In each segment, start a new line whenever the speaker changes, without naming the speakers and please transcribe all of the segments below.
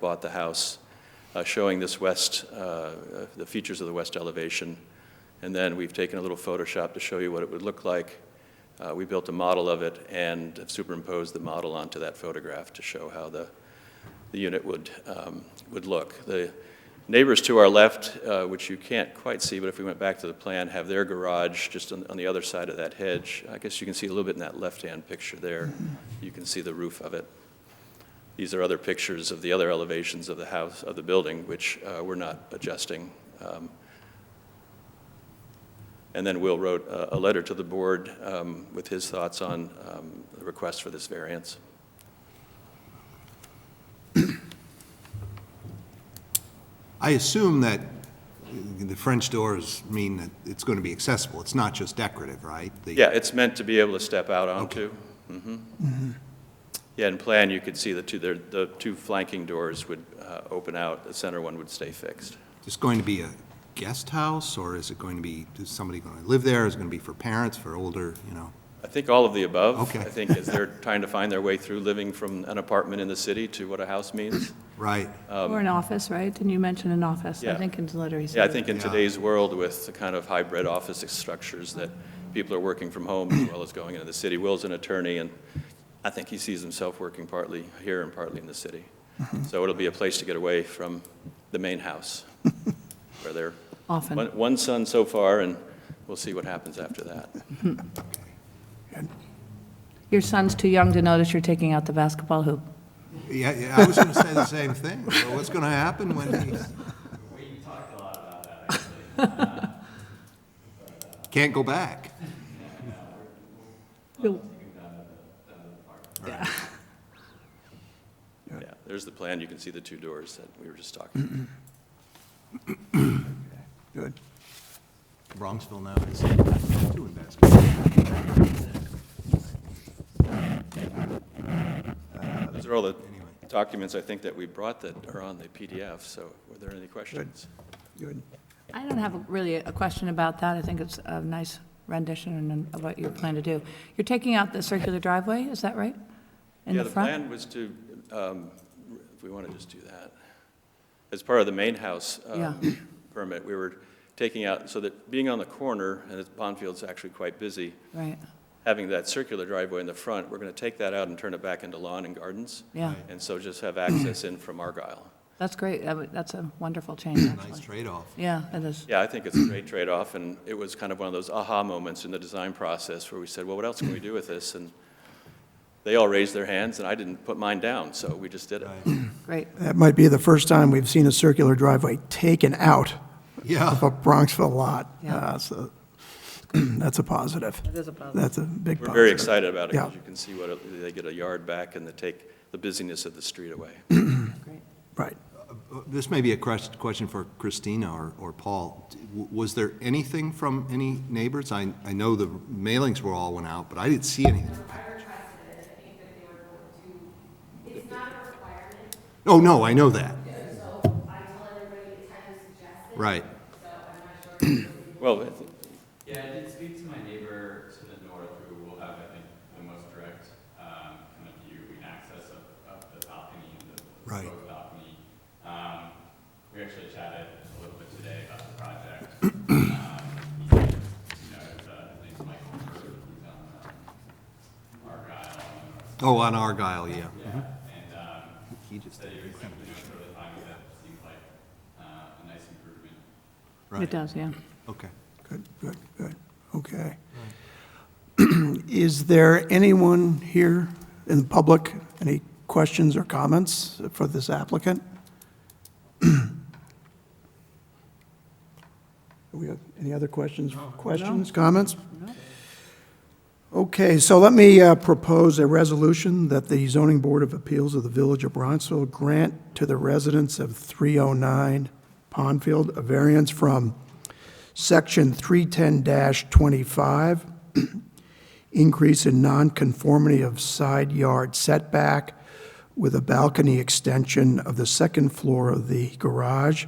bought the house, uh, showing this west, uh, uh, the features of the west elevation. And then we've taken a little Photoshop to show you what it would look like. Uh, We built a model of it and have superimposed the model onto that photograph to show how the, the unit would, um, would look. The neighbors to our left, uh, which you can't quite see, but if we went back to the plan, have their garage just on, on the other side of that hedge. I guess you can see a little bit in that left-hand picture there. You can see the roof of it. These are other pictures of the other elevations of the house, of the building, which uh, we're not adjusting. Um, And then Will wrote a, a letter to the board um, with his thoughts on um, the request for this variance.
I assume that the French doors mean that it's going to be accessible. It's not just decorative, right? The-
Yeah, it's meant to be able to step out onto. Mhm. Yeah, in plan, you could see the two, there- the two flanking doors would uh, open out, the center one would stay fixed.
Is going to be a guest house, or is it going to be, is somebody going to live there? Is it going to be for parents, for older, you know?
I think all of the above.
Okay.
I think as they're trying to find their way through living from an apartment in the city to what a house means.
Right,
Or an office, right? Didn't you mention an office?
Yeah.
I think in the letter he said.
Yeah, I think in
Yeah.
today's world with the kind of hybrid office structures that people are working from home as well as going into the city. Will's an attorney, and I think he sees himself working partly here and partly in the city. So it'll be a place to get away from the main house, where they're,
Often.
one- one son so far, and we'll see what happens after that.
Your son's too young to notice you're taking out the basketball hoop.
yeah, yeah, I was going to say the same thing. Well, What's going to happen when he... Can't go back.
Yeah, there's the plan. You can see the two doors that we were just talking about.
Good.
Bronxville now is doing basketball.
Those are all the documents, I think, that we brought that are on the PDF, so were there any questions?
Good.
I don't have a- really a question about that. I think it's a nice rendition and of what you plan to do. You're taking out the circular driveway, is that right? In
Yeah,
the
the
front?
plan was to, um, if we want to just do that, as part of the main house um,
Yeah.
permit, we were taking out, so that being on the corner, and it's- Bonfield's actually quite busy,
Right,
having that circular driveway in the front, we're going to take that out and turn it back into lawn and gardens,
yeah.
and so just have access in from Argyle.
That's great. That would- That's a wonderful change,
Nice
actually.
trade-off.
Yeah, it is.
Yeah, I think it's a great trade-off, and it was kind of one of those aha moments in the design process where we said, well, what else can we do with this? And they all raised their hands, and I didn't put mine down, so we just did it.
Great.
That might be the first time we've seen a circular driveway taken out
Yeah.
of a Bronxville lot.
Yeah.
Uh, So that's a positive.
That is a positive.
That's a big positive.
We're very excited about it, because
Yeah.
you can see what, it- they get a yard back and they take the busyness of the street away.
Great.
Right.
This may be a quest- question for Christina or, or Paul. D- w- Was there anything from any neighbors? I, I know the mailings were all went out, but I didn't see anything. Oh, no, I know that. Right.
Well, I thi-
Yeah, I did speak to my neighbor to the north, who will have, I think, the most direct um, kind of view and access of, of the balcony and the
Right.
proposed balcony. Um, we actually chatted a little bit today about the project. um, he said, you know, it's, uh, his name's Michael Bird, he's on um, Argyle, on the north
Oh, on Argyle, yeah.
side, and um,
He just
said he was you know, really fine with it. Seems like uh, a nice improvement.
It
Right,
does, yeah.
okay.
Good, good, good. Okay. Is there anyone here in the public, any questions or comments for this applicant? Do we have any other questions, questions, comments? Okay, so let me uh, propose a resolution that the zoning board of appeals of the Village of Bronxville grant to the residents of 309 Pondfield a variance from Section 310-25, increase in nonconformity of side yard setback with a balcony extension of the second floor of the garage,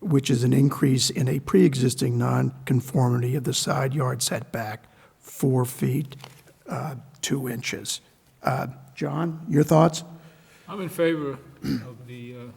which is an increase in a pre-existing nonconformity of the side yard setback, four feet, uh, two inches. Uh, John, your thoughts?
I'm in favor. of the uh,